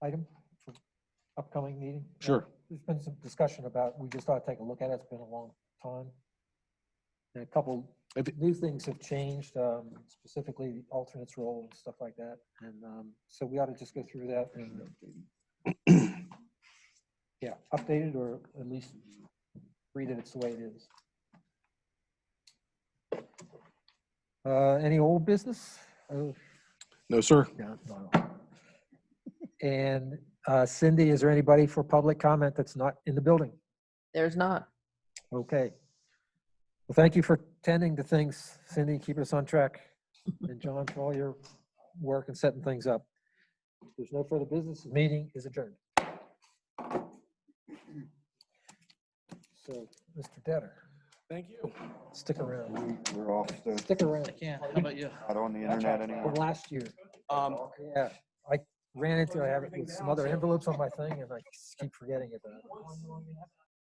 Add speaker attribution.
Speaker 1: item for upcoming meeting?
Speaker 2: Sure.
Speaker 1: There's been some discussion about, we just ought to take a look at it. It's been a long time. And a couple
Speaker 2: If it-
Speaker 1: new things have changed, um, specifically the alternates role and stuff like that. And um, so we ought to just go through that and. Yeah, update it or at least read it its the way it is. Uh, Any old business? Oh,
Speaker 2: No, sir.
Speaker 1: no, no, no. And uh, Cindy, is there anybody for public comment that's not in the building?
Speaker 3: There's not.
Speaker 1: Okay. Well, thank you for tending to things, Cindy, keeping us on track. And John, for all your work and setting things up. If There's no further business. the Meeting is adjourned. So, Mr. Detter,
Speaker 2: Thank you.
Speaker 1: stick around,
Speaker 4: We're off the,
Speaker 1: stick around.
Speaker 5: Yeah, how about you?
Speaker 4: not on the internet
Speaker 1: From
Speaker 4: anymore.
Speaker 1: last year,
Speaker 5: Um,
Speaker 1: yeah. I ran into, I have it with some other envelopes on my thing and I just keep forgetting about it.